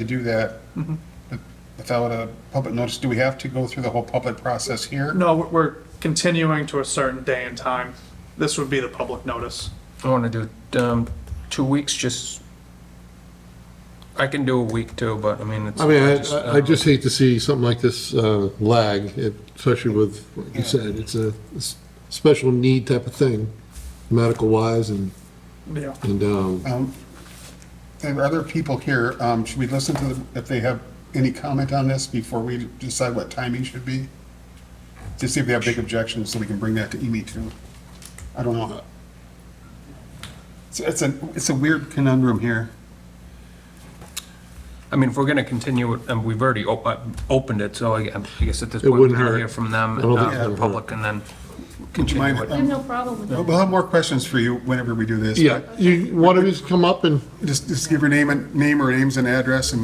to do that without a public notice, do we have to go through the whole public process here? No, we're- we're continuing to a certain day and time. This would be the public notice. I want to do, um, two weeks, just, I can do a week too, but I mean, it's. I mean, I, uh, I- I just hate to see something like this uh, lag, especially with, what you said, it's a s- special need type of thing, medical wise, and, Yeah. and, um, Um, There are other people here, um, should we listen to them if they have any comment on this before we decide what timing should be? To see if they have big objections, so we can bring that to Amy too. I don't know. So it's a, it's a weird conundrum here. I mean, if we're going to continue, it, and we've already op- uh, opened it, so I I guess at this It point, wouldn't we'll hurt. hear from them, I don't think uh, it the would public, and then continue mind- um, it. I have no problem with that. We'll have more questions for you whenever we do this. yeah, you, one of yous come up and, Just, just give your name and, name or names and address and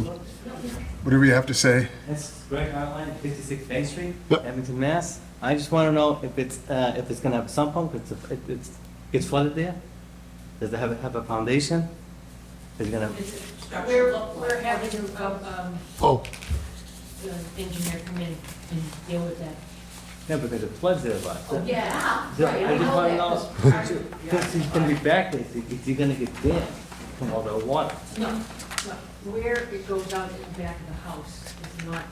whatever you have to say. That's Greg Hotline, 56 Main Street, Yep. Abington, Mass. I just want to know if it's, uh, if it's going to have a sump pump, if it's- if it's, gets flooded there? Does it have, a- have a foundation? Is it going to, We're, we're having to, um, oh, the engineer come in and deal with that. yeah, because it floods there a lot. Oh, Yeah. So I just want to know, since he's going to be back, there, is he- is he going to get damp from all the water? No, no, where it goes out in the back of the house is not,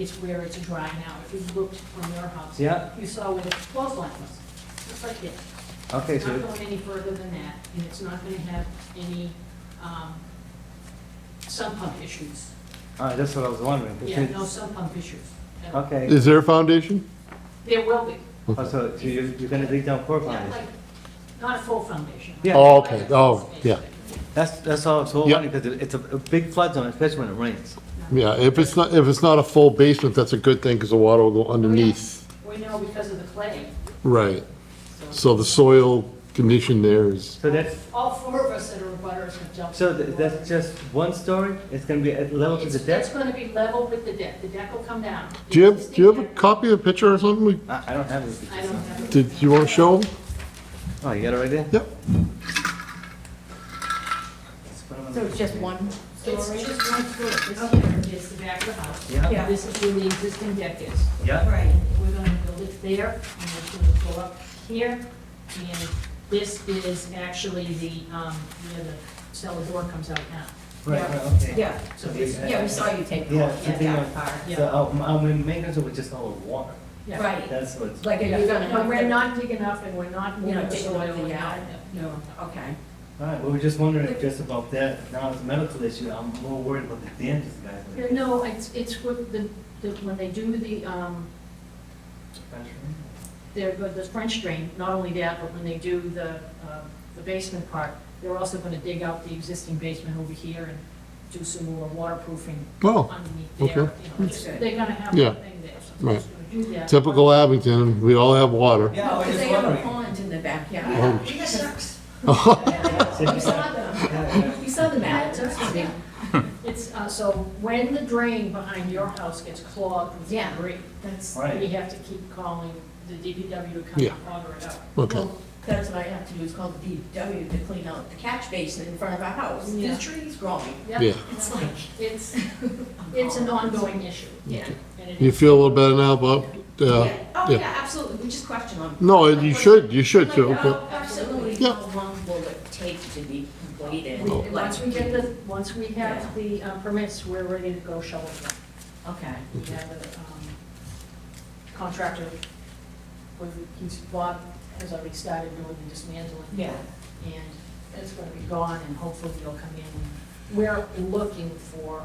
it's where it's dry now. If you looked from your house. Yeah. You saw where the clothesline was, just like this. Okay, It's not so, going any further than that, and it's not gonna have any, um, sump pump issues. all right, that's what I was wondering. 'cause Yeah, no it's- sump pump issues. Okay, is there a foundation? There will be, Oh, so so you're, you're going to dig down core not foundation? like, not a full foundation. Yeah. Oh, okay, oh, yeah, That's, that's all I was Yep. wondering, because it's a a big flood zone, especially when it rains. yeah, if it's not, if it's not a full basement, that's a good thing, because the water will go underneath, We know because of the clay, right, so. so the soil condition there is, So that's, All four of us that are butters have jumped. So th- that's just one story? It's gonna be at level to the It's- It's deck? gonna be level with the deck, the deck will come down. do you have, do you have a copy of the picture or something? We- I, I don't have it. I don't have. it. Did, you want to show 'em? Oh, you got it right there? Yep, So it's just one It's story? just one floor, this here is the back of the house. Yeah. Yeah. This is where the existing deck is. Yeah? Right. We're gonna build it there, and it's gonna go up here, and this is actually the, um, where the cellar door comes out now. Right, right, okay. Yeah, So this, yeah, we saw you take Yeah, off, yeah, something that like- part. Yeah. So, uh, my, my main concern was just all the water. yeah. Right, That's what's, like, are Yeah, you gonna, no, we're not digging up and we're not You're moving not the taking soil. anything we're out? not- No, okay. all right, we were just wondering just about that. Now it's a medical issue, I'm more worried about the dentist guys. Yeah, No, it's, it's what the, the, when they do the, um, their, the French drain, not only that, but when they do the, um, the basement part, they're also gonna dig out the existing basement over here and do some more waterproofing well. underneath Oh, okay. there. you know, just- Okay. They're gonna have Yeah. a thing there, so they're just gonna do that. Typical Abington, we all have water. Yeah, I was Because just they have a wondering. pond in the backyard. Oh, We got sharks. We saw them, Yeah, we saw the map. Yeah. It's, uh, so when the drain behind your house gets clogged with Yeah. debris, That's, Right. we have to keep calling the DPW to come Yeah. and auger it up. Okay, well, that's what I have to do, is call the DPW to clean out the catch basin in front of our house. Yeah. There's trees growing. Yeah. It's like, It's, it's an ongoing issue. yeah. and it you is. feel a little better now about, uh, Yeah. yeah. Oh, yeah, absolutely, we just question them. no, you should, you should too, Like, but, oh, Absolutely, Yeah. how long will it take to be completed? We- and Once we get Like- the, once we have the uh, permits, we're ready to go shovel them. Okay. We have a um, contractor, who- he's, Bob has already started doing the dismantling. Yeah. And it's going to be gone, and hopefully they'll come in. We're looking for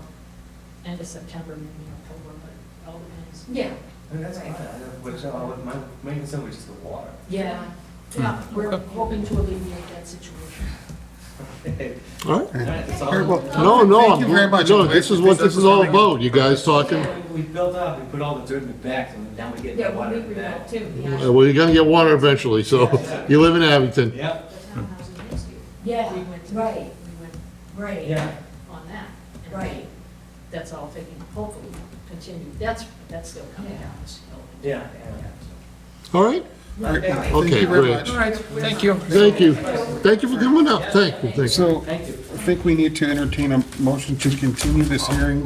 end of September, maybe October, but it all depends. Yeah. And that's fine, I don't- which, uh, my main concern was just the water. Yeah. Yeah, we're hoping to alleviate that situation. all right. All right, that's all. Very well. No, no, Thank you very I'm- much. no, this is what this is all about, you guys talking, Yeah. We built up, we put all the dirt in the back, and now we're getting Yeah, the well, water we in the agree back. with that too, Uh, yeah. well, you're gonna get water eventually, so, you live in Abington. Yep. The townhouse in Pittsfield, we Yeah, went, we right, went right. Yeah. on that. and Right. That's all taking, hopefully, continue, that's, that's still coming down this hill. Yeah. All right? Okay. Thank Okay, you very great. much. All right, thank you. Thank you, thank you for coming up, thank you, thank you. So Thank you. think we need to entertain a motion to continue this hearing